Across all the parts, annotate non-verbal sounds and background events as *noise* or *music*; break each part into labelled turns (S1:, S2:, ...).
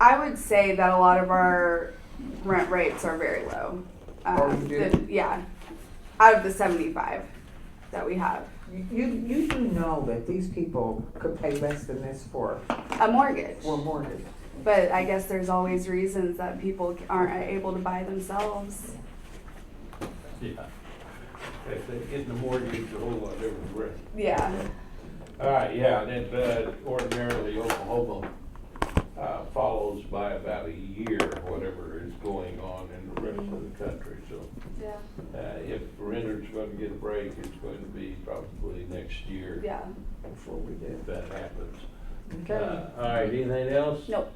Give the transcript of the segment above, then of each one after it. S1: I would say that a lot of our rent rates are very low. Um,
S2: Oh, you do?
S1: the- yeah, Uh, out of the seventy-five that we have,
S2: You, you do know that these people could pay less than this for,
S1: a mortgage.
S2: for a mortgage.
S1: But I guess there's always reasons that people aren't able to buy themselves.
S3: Yeah. If they're getting a mortgage, it's a whole lot different risk.
S1: Yeah.
S3: All right, yeah, and uh, ordinarily Oklahoma, uh, follows by about a year, whatever is going on in the rest of the country, so.
S1: Yeah.
S3: Uh, if renters gonna get a break, it's going to be probably next year.
S1: Yeah.
S2: Before we did.
S3: If that happens.
S2: Okay.
S3: Uh, All right, anything else? Uh,
S1: Nope.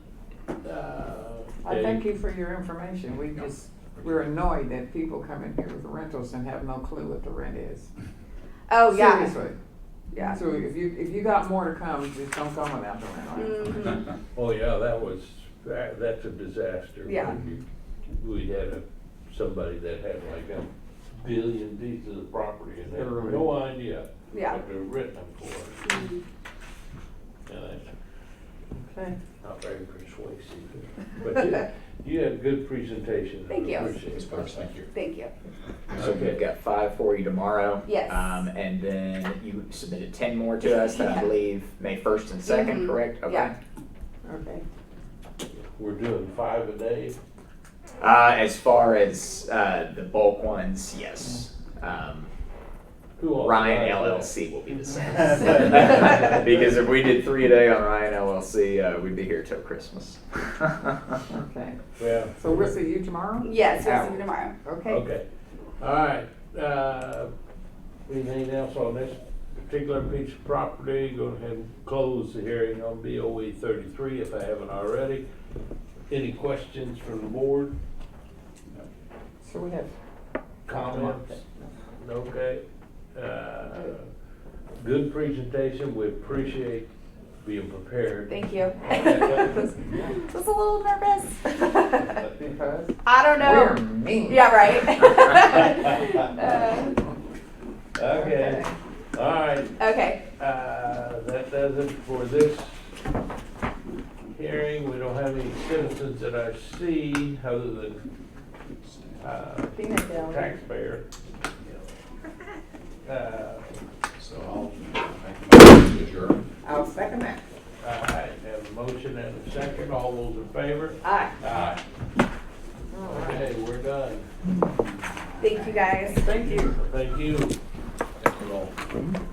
S2: I
S3: I
S2: thank you for your information. We just, we're annoyed that people come in here with rentals and have no clue what the rent is.
S1: Oh yeah.
S2: Seriously.
S1: Yeah.
S2: So if you, if you got more to come, just don't come without the rental.
S1: Mhm. *laughs*
S3: Oh, yeah, that was, that, that's a disaster.
S1: Yeah.
S3: when you- We had a, somebody that had like a billion pieces of property and they had no idea
S1: Yeah.
S3: what they were renting them for.
S1: Mhm.
S3: And that's
S2: Okay.
S3: not very
S1: *laughs*
S3: persuasive. But you, you had good presentation. and
S1: Thank you.
S3: appreciate
S4: Ms.
S3: it.
S4: Parks, thank you.
S1: Thank you.
S4: So
S3: Okay.
S4: we've got five for you tomorrow.
S1: Yes.
S4: Um, and then you submitted ten more to us, that
S1: Yeah.
S4: I believe, May first and second,
S1: Mhm.
S4: correct?
S1: Yeah.
S4: Okay.
S2: Okay.
S3: We're doing five a day.
S4: Uh, as far as, uh, the bulk ones, yes. Um,
S3: Who all
S4: Ryan
S3: five a day?
S4: LLC will be
S3: *laughs*
S4: the same. *laughs* Because if we did three a day on Ryan LLC, uh, we'd be here till
S1: *laughs*
S4: Christmas.
S2: Okay.
S3: Yeah.
S2: So we'll see you tomorrow?
S1: Yes, we'll see you tomorrow.
S2: Okay.
S3: Okay, all right, uh, anything else on this particular piece of property? Go ahead and close the hearing on BOE thirty-three if I haven't already. Any questions from the board,
S2: So we have
S3: comments? Okay, uh, good presentation, we appreciate being prepared.
S1: Thank *laughs* you. Was a little nervous. *laughs*
S2: Because
S1: I don't
S2: we're
S1: know.
S2: mean.
S1: Yeah, *laughs*
S4: *laughs*
S1: right. Uh,
S3: Okay, all right,
S1: Okay.
S3: Uh, That does it for this hearing. We don't have any citizens that I see other than uh,
S1: Peanut gallery. *laughs*
S3: taxpayer. Uh, All
S4: So I'll make a motion
S2: I'll second that.
S3: right, have a motion and a second. All those in favor?
S2: Aye.
S3: Aye.
S2: All right.
S3: Okay, we're done.
S1: Thank you guys.
S2: Thank you.
S3: Thank you.